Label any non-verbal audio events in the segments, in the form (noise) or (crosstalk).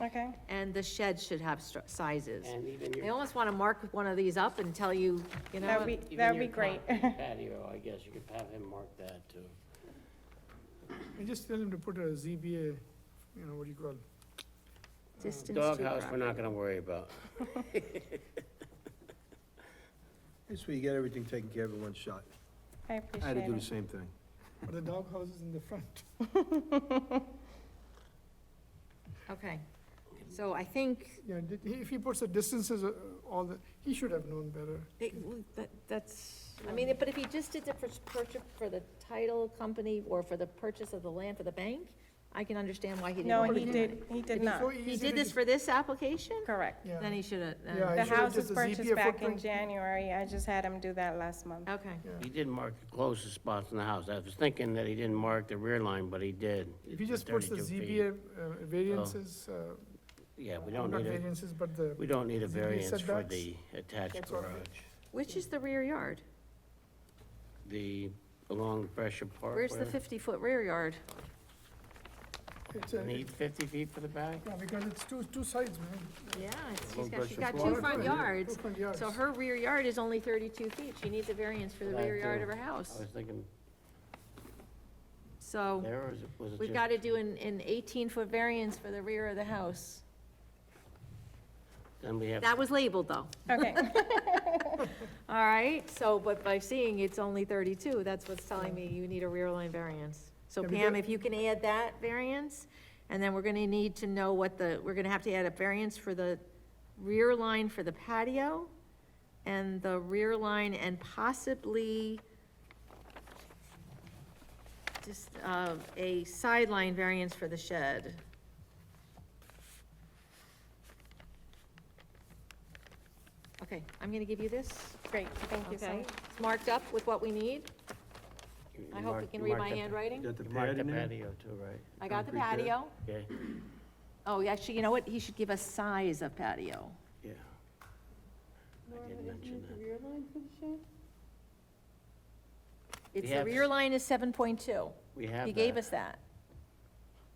Okay. and the shed should have stru- sizes. and even I your almost want to mark one of these up and tell you, you know, That'd be, even that'd your be great. (laughs) concrete patio, I guess you could have him mark that too. And just tell him to put a ZBA, you know, what do you call it? distance to Doghouse, we're property. not gonna worry about. This way you get everything taken care of in one shot. I I had to appreciate do the it. same (laughs) thing. But Uh, the doghouse is in the front. (laughs) Okay, so I think, Yeah, did- he- if he puts the distances, uh, all the, he should have known better. it- that- that's, I mean, but if he just did it for purchase, for the title company or for the purchase of the land for the bank, I can understand why he didn't. No, want he to do did, he It did is not. so it. easy He to did this just- for this application? Correct. Yeah. Then he should have, Yeah, The he should've house did was the purchased ZBA back in footprint. January. I just had him do that last month. okay, He did mark the closest spots in the house. I was thinking that he didn't mark the rear line, but he did. If he just The puts the 32 feet. ZBA uh, variances, uh, Yeah, we don't not need a, variances, but the, we don't need a ZBA variance for setbacks. the attached That's all garage. right. which is the rear yard? The, along Pressure Park. Where's the whatever. fifty-foot rear yard? it's a, Need fifty feet for the back? yeah, because it's two, two sides, man. Yeah, it's- she's Well, got, she's that's got just two one. front Two yards, front yards. so her rear yard is only thirty-two feet, she needs a variance for the Right rear yard of there. her I house. was thinking So, there, or is it- was it we've just- gotta do an, an eighteen-foot variance for the rear of the house. Then we have, That was labeled, though. Okay, All right, so, but by seeing it's only thirty-two, that's what's telling me you need a rear line variance. So Yeah, we Pam, got- if you can add that variance, and then we're gonna need to know what the, we're gonna have to add a variance for the rear line for the patio, and the rear line and possibly just, uh, a sideline variance for the shed. Okay, I'm gonna give you this. great. (laughs) Thank you so Okay, much. it's marked up with what we need. you I hope marked- you can you read marked my the- handwriting. Got the You marked pad the in there? patio too, right? I got the concrete pad. patio. Okay, Oh, yeah, actually, you know what? He should give us size of patio. yeah. I did mention that. It's, We the have- rear line is seven point two. We have He gave that. us that.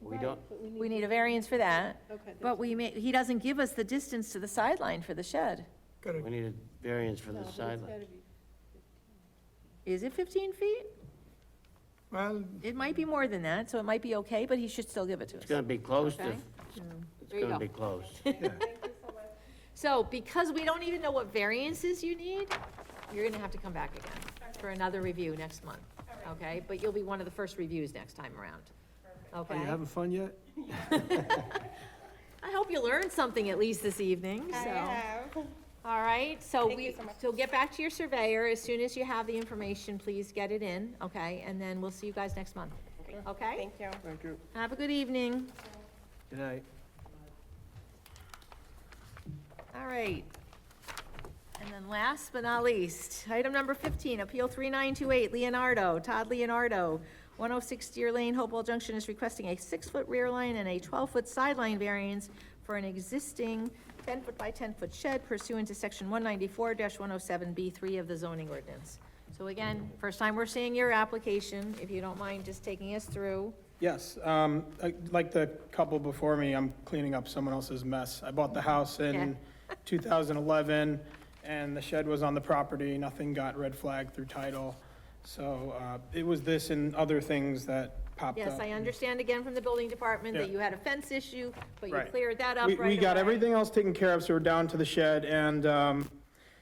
We don't, We need a variance for that. Okay. But we may, he doesn't give us the distance to the sideline for the shed. Correct. we need a variance for the sideline. Is it fifteen feet? Well, It might be more than that, so it might be okay, but he should still give it to us. It's gonna be close to, Okay. it's There you gonna go. be close. (laughs) So because we don't even know what variances you need, you're gonna have to come back again for another review next month, okay? But you'll be one of the first reviews next time around, Are you okay? having fun yet? I hope you learned something at least this evening, I so, have. all right? So Thank you we, so much. so get back to your surveyor, as soon as you have the information, please get it in, okay? And then we'll see you guys next month, okay? Thank you. Thank you. Have a good evening. Good night. All right. And then last but not least, item number 15, Appeal 3928 Leonardo, Todd Leonardo, 106 Deer Lane, Hopewell Junction is requesting a six-foot rear line and a 12-foot sideline variance for an existing 10-foot by 10-foot shed pursuant to Section 194-107B3 of the zoning ordinance. So again, first time we're seeing your application, if you don't mind just taking us through. Yes, um, I- like the couple before me, I'm cleaning up someone else's mess. I bought the house in (laughs) 2011, and the shed was on the property, nothing got red flagged through title. So uh, it was this and other things that popped up. Yes, I understand again from the building department that Yeah. you had a fence issue, but you Right. cleared that up We- right away. We got everything else taken care of, so we're down to the shed, and um,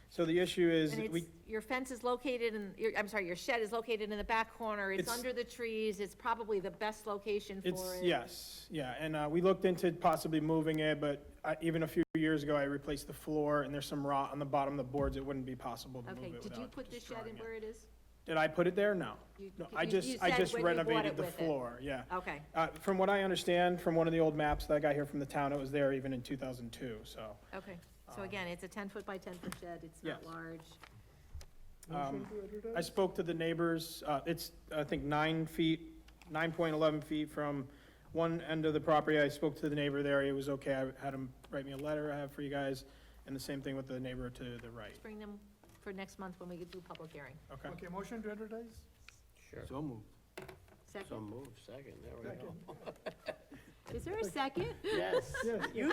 so the issue is, And we, it's, your fence is located in, your, I'm sorry, your shed is located in the back corner, it's It's- under the trees, it's probably the best location for it. it's, yes, yeah, and uh, we looked into possibly moving it, but I- even a few years ago, I replaced the floor, and there's some rot on the bottom of the boards, it wouldn't be possible to move Okay, it did you without put the shed destroying in it. where it is? Did I put it there? No. You- No, you- I you just, I said just when you bought renovated it the with it. floor, yeah. Okay, Uh, from what I understand, from one of the old maps that I got here from the town, it was there even in two thousand two, so. okay, so again, it's a ten foot by ten foot shed, it's not Yes. large, um, I spoke to the neighbors, uh, it's, I think, nine feet, nine point eleven feet from one end of the property. I spoke to the neighbor there, it was okay, I had him write me a letter I have for you guys, and the same thing with the neighbor to the right, bring them for next month when we do public hearing. okay? okay, motion to advertise? Sure. So moved. Second, So move, second, there we go. Is there a second? Yes. (laughs) Yes. You